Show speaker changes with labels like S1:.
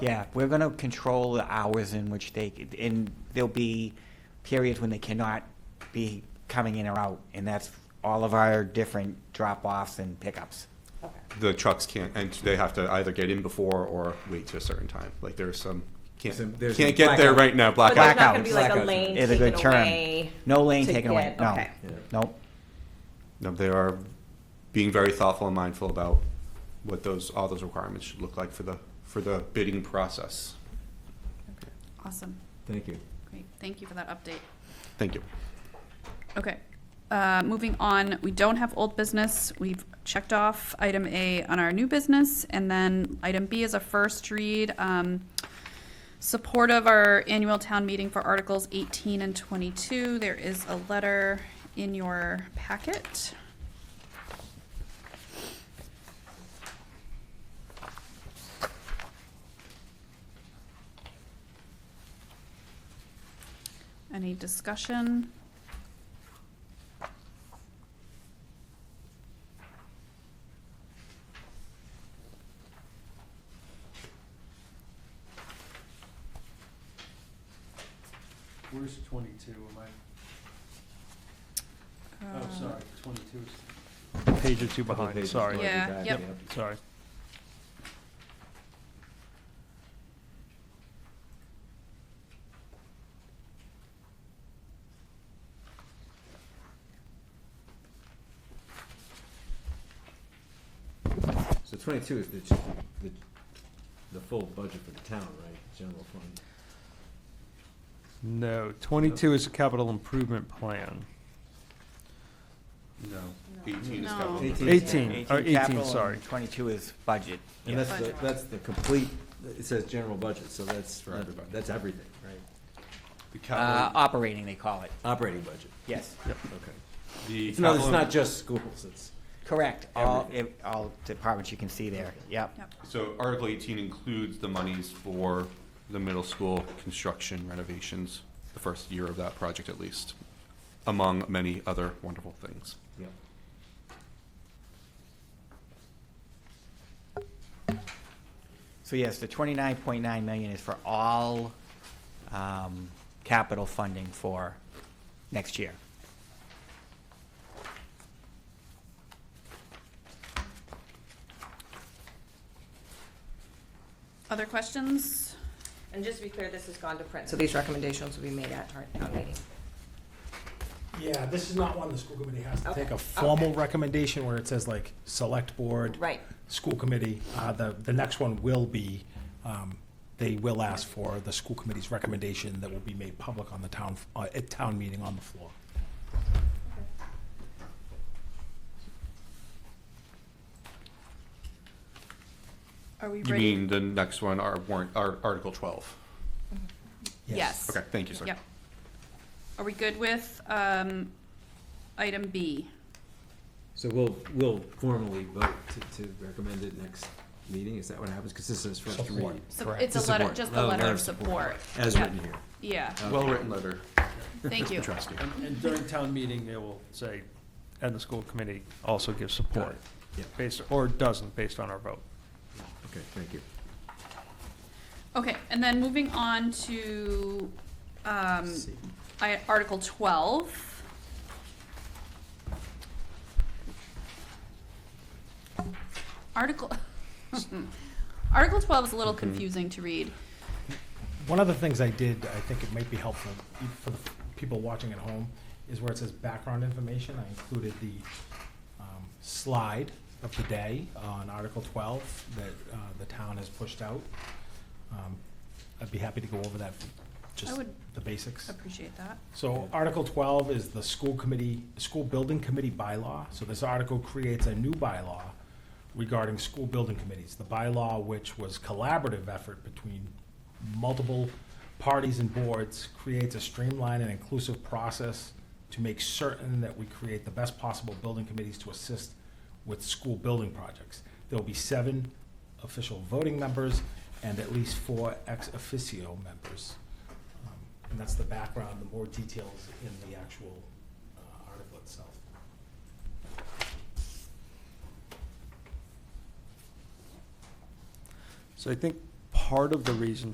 S1: Yeah, we're gonna control the hours in which they, and there'll be periods when they cannot be coming in or out, and that's all of our different drop-offs and pickups.
S2: Okay.
S3: The trucks can't, and they have to either get in before or wait to a certain time. Like there's some, can't,
S4: Some- there's
S3: can't
S4: a
S3: get there
S4: blackout.
S3: right now,
S2: But there's not
S3: blackout.
S2: gonna be like a
S4: Blackout.
S2: lane
S1: Is a good
S2: taken
S1: term.
S2: away.
S1: No lane
S2: to
S1: taken away,
S2: get-
S1: no,
S2: okay.
S1: nope.
S3: No, they are being very thoughtful and mindful about what those, all those requirements should look like for the, for the bidding process.
S5: Awesome.
S4: Thank you.
S5: Great. Thank you for that update.
S3: Thank you.
S5: Okay. Uh, Moving on, we don't have old business. We've checked off item A on our new business. And then item B is a first read. um, Support of our annual town meeting for Articles 18 and 22. There is a letter in your packet. Any discussion?
S6: Where's twenty-two, am I, oh,
S5: Uh,
S6: sorry, twenty-two is. Page or two
S4: Couple
S6: behind,
S4: pages
S6: sorry,
S4: already
S5: Yeah,
S4: back,
S5: yep.
S6: sorry.
S4: So twenty-two is the, the, the full budget for the town, right, general fund?
S6: No, twenty-two is a capital improvement plan.
S3: No. Eighteen is
S5: No.
S3: capital.
S4: Eighteen.
S6: Eighteen, or eighteen,
S1: capital
S6: sorry.
S1: and Twenty-two is budget.
S4: And
S1: Yeah.
S4: that's, the- that's the complete, it says general budget, so that's,
S3: For everybody.
S4: that's everything, right?
S3: The
S1: Uh,
S3: capital,
S1: operating, they call it,
S4: Operating budget,
S1: yes,
S4: okay.
S3: the
S4: It's not, it's
S3: capital-
S4: not just schools, it's,
S1: correct, all, if- all departments you can see there, yep.
S5: Yep.
S3: So Article eighteen includes the monies for the middle school construction renovations, the first year of that project at least, among many other wonderful things.
S4: yeah.
S1: So yes, the twenty-nine point nine million is for all, um, capital funding for next year.
S5: Other questions?
S2: And just to be clear, this has gone to print, so these recommendations will be made at our town meeting.
S7: Yeah, this is not one the school committee has to
S2: Okay,
S7: take a
S2: okay.
S7: formal recommendation where it says like, select board.
S2: Right.
S7: School committee, uh, the, the next one will be, um, they will ask for the school committee's recommendation that will be made public on the town, uh, at town meeting on the floor.
S5: Are we
S3: You
S5: ready?
S3: mean the next one, our warrant, our Article twelve?
S5: Yes.
S3: Okay, thank you, sir.
S5: Yep. Are we good with, um, item B?
S4: So we'll, we'll formally vote to, to recommend it next meeting, is that what happens? Because this is first
S7: Support.
S4: read.
S5: So
S7: Correct.
S5: It's a
S4: To
S5: letter,
S4: support.
S5: just a letter of support.
S4: Oh, As
S5: Yeah.
S4: written here.
S5: Yeah,
S3: Well-written letter,
S5: thank you.
S3: trustee.
S6: And during town meeting, they will say, and the school committee also gives support,
S4: Yeah,
S6: based, or doesn't, based on our vote.
S4: okay, thank you.
S5: Okay, and then moving on to, um,
S4: See.
S5: I, Article twelve. Article, Article twelve is a
S3: Mm-hmm.
S5: little confusing to read.
S7: One of the things I did, I think it might be helpful for the people watching at home, is where it says background information, I included the um, slide of the day on Article 12 that uh, the town has pushed out. Um, I'd be happy to go over that, just
S5: would
S7: the basics.
S5: Appreciate that.
S7: So Article twelve is the school committee, school building committee bylaw. So this article creates a new bylaw regarding school building committees. The bylaw, which was collaborative effort between multiple parties and boards, creates a streamlined and inclusive process to make certain that we create the best possible building committees to assist with school building projects. There will be seven official voting members and at least four ex officio members. Um, And that's the background, the more details in the actual uh, article itself.
S6: So I think part part of the reason